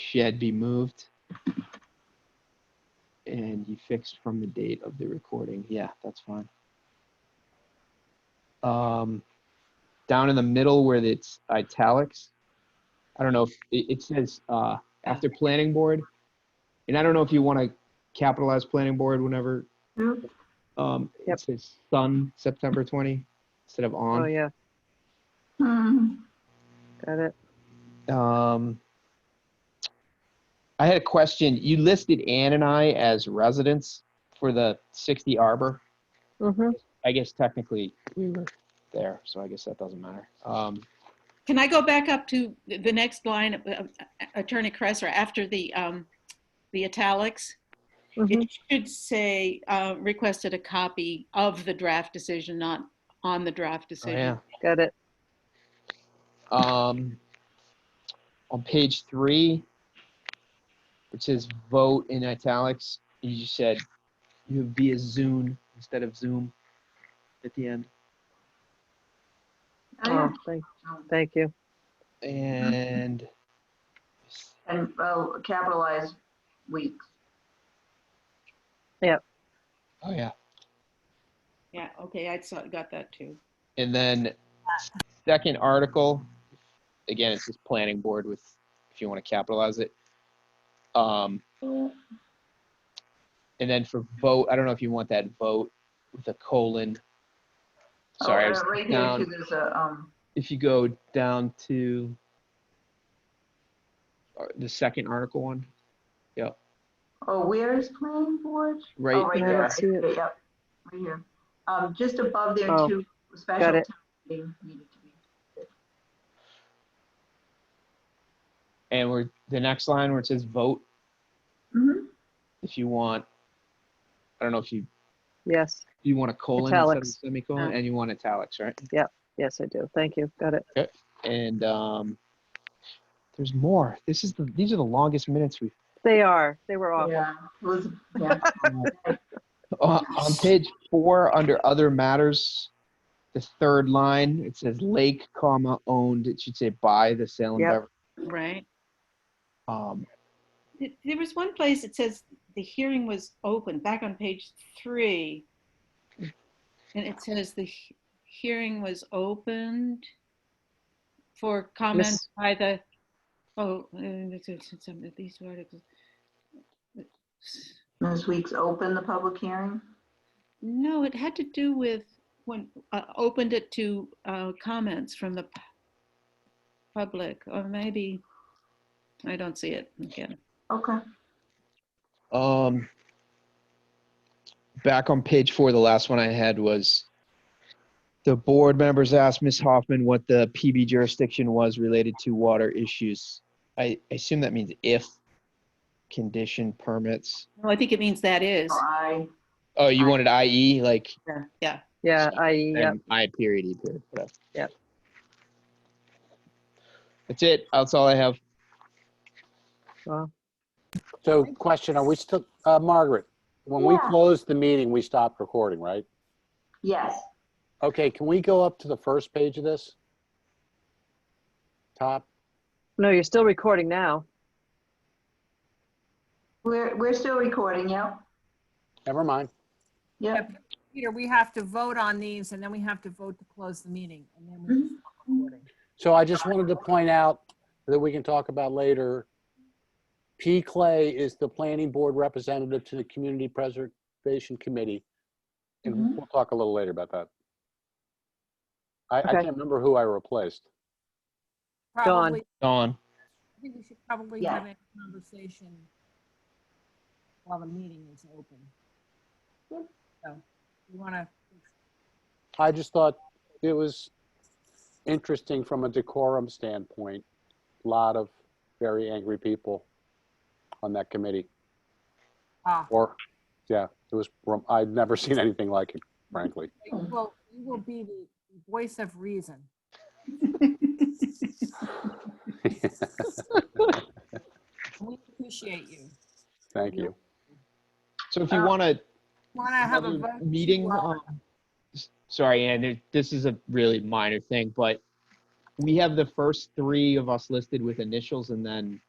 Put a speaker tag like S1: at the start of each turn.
S1: shed be moved. And you fixed from the date of the recording. Yeah, that's fine. Um, down in the middle where it's italics, I don't know if, it, it says, uh, after planning board. And I don't know if you want to capitalize planning board whenever,
S2: No.
S1: um,
S3: Yep.
S1: it says sun, September 20, instead of on.
S3: Oh, yeah,
S2: Hmm.
S3: got it.
S1: Um, I had a question. You listed Ann and I as residents for the 60 Arbor.
S3: Mm-hmm.
S1: I guess technically we were there, so I guess that doesn't matter. Um,
S4: Can I go back up to the the next line, uh, Attorney Cresser, after the, um, the italics? It should say, uh, requested a copy of the draft decision, not on the draft
S1: oh, yeah.
S4: decision.
S3: mm-hmm. Got it.
S1: Um, on page three, which says vote in italics, you just said you have via Zoom instead of Zoom at the end.
S2: I
S3: Oh,
S2: don't
S3: thank,
S2: know.
S3: thank you.
S1: And
S2: And, oh, capitalize weeks.
S1: oh, yeah.
S4: Yeah, okay, I saw, got that too.
S1: And then second article, again, it's just planning board with, if you want to capitalize it. Um, and then for vote, I don't know if you want that vote with a colon. Sorry, I
S2: Oh,
S1: was-
S2: uh, Right here,
S1: down.
S2: too, there's a, um,
S1: if you go down to uh, the second article one,
S2: oh, where is planning board?
S1: right?
S2: Oh, right
S3: there. I
S2: there.
S3: don't see it.
S2: Okay, Yep, right here. Um, just above there
S3: Oh,
S2: too, special
S3: got
S2: town
S3: it.
S2: meeting needed to be.
S1: And we're, the next line where it says vote,
S2: Mhm.
S1: if you want, I don't know if you,
S3: Yes,
S1: you want a colon instead of a
S3: Italics.
S1: semicolon,
S3: Yeah.
S1: and you want italics, right?
S3: yes, I do. Thank you. Got it.
S1: and um, there's more. This is the these are the longest minutes we've
S3: They are. They were
S1: Oh.
S3: awful.
S2: Yeah, it was, yeah.
S1: uh, on page four under other matters. The third line it says lake, comma owned. It should say by the Salem
S3: Yep.
S1: Bever-
S4: Right.
S1: Um,
S4: Th- There was one place that says the hearing was open, back on page three. And it says the he- hearing was opened for comment
S3: Miss-
S4: by the, oh, uh, this is- some of these articles.
S2: This week's open, the public hearing.
S4: No, it had to do with when, uh, opened it to uh, comments from the pu- public, or maybe, I don't see it again.
S2: Okay.
S1: um, back on page four, the last one I had was the board members asked Ms. Hoffman what the PB jurisdiction was related to water issues. I I assume that means if condition permits.
S4: No, I think it means that is.
S2: I,
S1: Oh, you
S2: I-
S1: wanted IE, like
S4: Yeah,
S3: Yeah, I, yeah,
S1: and I period, E period, whatever.
S3: Yep.
S1: That's it. That's all I have.
S3: well,
S5: So question, are we still, uh, Margaret, when we
S2: Yeah.
S5: closed the meeting, we stopped recording, right?
S2: yes,
S5: Okay, can we go up to the first page of this? Top?
S3: no, you're still recording now.
S2: we're, we're still recording, yep,
S5: Never mind.
S2: yep.
S6: Peter, we have to vote on these and then we have to vote to close the meeting and then we stop recording.
S5: So I just wanted to point out that we can talk about later. P. Clay is the planning board representative to the Community Preservation Committee. And
S2: Mhm.
S5: we'll talk a little later about that. I, I
S3: Okay.
S5: can't remember who I replaced.
S3: Dawn.
S6: Probably,
S1: Dawn.
S6: I think we should probably
S2: Yeah.
S6: have a conversation while the meeting is open. So, you want to,
S5: I just thought it was interesting from a decorum standpoint. A lot of very angry people on that committee.
S6: ah,
S5: Or, yeah, it was, I've never seen anything like it, frankly.
S6: well, you will be the voice of reason. We appreciate you.
S5: Thank you.
S1: So if you
S2: Uh,
S1: want to
S6: Want to have a vote? to,
S1: meeting,
S6: uh,
S1: um, s- sorry, Ann, there- this is a really minor thing, but we have the first three of us listed with initials and then